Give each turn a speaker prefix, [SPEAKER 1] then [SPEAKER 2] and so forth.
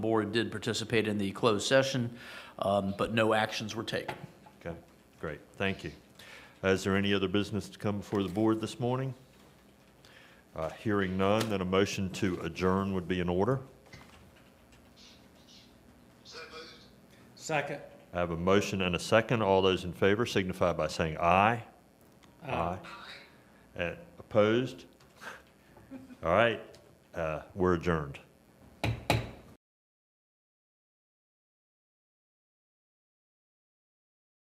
[SPEAKER 1] Board did participate in the closed session, um, but no actions were taken.
[SPEAKER 2] Okay, great, thank you. Is there any other business to come before the board this morning? Uh, Hearing none, then a motion to adjourn would be in order.
[SPEAKER 3] Second.
[SPEAKER 2] I have a motion and a second. All those in favor signify by saying aye. Aye. Uh, Opposed? All right, uh, we're adjourned.